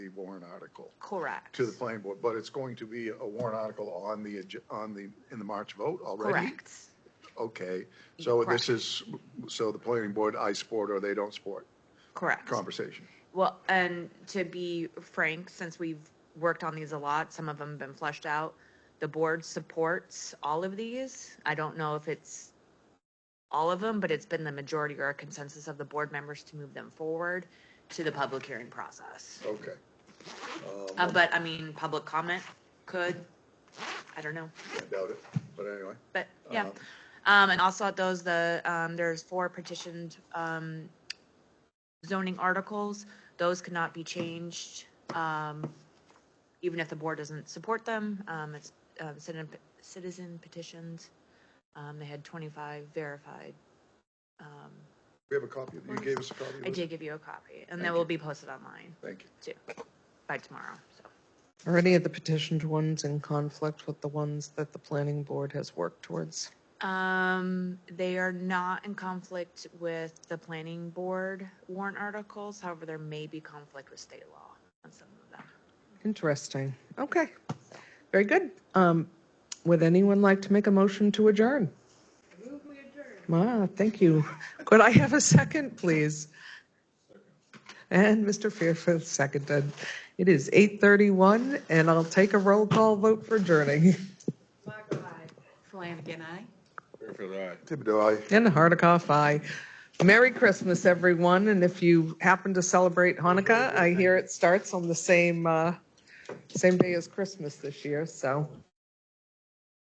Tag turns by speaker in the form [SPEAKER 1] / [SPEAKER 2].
[SPEAKER 1] warrant article
[SPEAKER 2] Correct.
[SPEAKER 1] to the planning board, but it's going to be a warrant article on the, ag- on the, in the March vote already?
[SPEAKER 2] Correct.
[SPEAKER 1] Okay, so
[SPEAKER 2] Correct.
[SPEAKER 1] this is, so the planning board, I support or they don't support
[SPEAKER 2] Correct.
[SPEAKER 1] conversation.
[SPEAKER 2] Well, and to be frank, since we've worked on these a lot, some of them have been fleshed out. The board supports all of these. I don't know if it's all of them, but it's been the majority or a consensus of the board members to move them forward to the public hearing process.
[SPEAKER 1] Okay. Um,
[SPEAKER 2] Uh, but I mean, public comment could, I don't know,
[SPEAKER 1] I doubt it, but anyway.
[SPEAKER 2] but yeah.
[SPEAKER 1] Um,
[SPEAKER 2] Um, and also at those, the, um, there's four petitioned, um, zoning articles. Those could not be changed, um, even if the board doesn't support them. Um, it's, um, citizen, citizen petitions. Um, they had twenty-five verified. Um,
[SPEAKER 1] We have a copy, of- you gave us a copy of
[SPEAKER 2] I
[SPEAKER 1] it?
[SPEAKER 2] did give you a copy and that
[SPEAKER 1] Thank
[SPEAKER 2] will
[SPEAKER 1] you.
[SPEAKER 2] be posted online
[SPEAKER 1] Thank you.
[SPEAKER 2] too by tomorrow, so.
[SPEAKER 3] Are any of the petitioned ones in conflict with the ones that the planning board has worked towards?
[SPEAKER 2] Um, they are not in conflict with the planning board warrant articles, however, there may be conflict with state law on some of them.
[SPEAKER 3] Interesting. Okay. Very good. Um, would anyone like to make a motion to adjourn? Ah, thank you. Could I have a second, please? And Mr. Fairfield seconded. It is 8:31 and I'll take a roll call vote for adjourning.
[SPEAKER 2] Flanagan, I.
[SPEAKER 1] Thibodeau, aye.
[SPEAKER 3] And Hardikoff, aye. Merry Christmas, everyone, and if you happen to celebrate Hanukkah, I hear it starts on the same, uh, same day as Christmas this year, so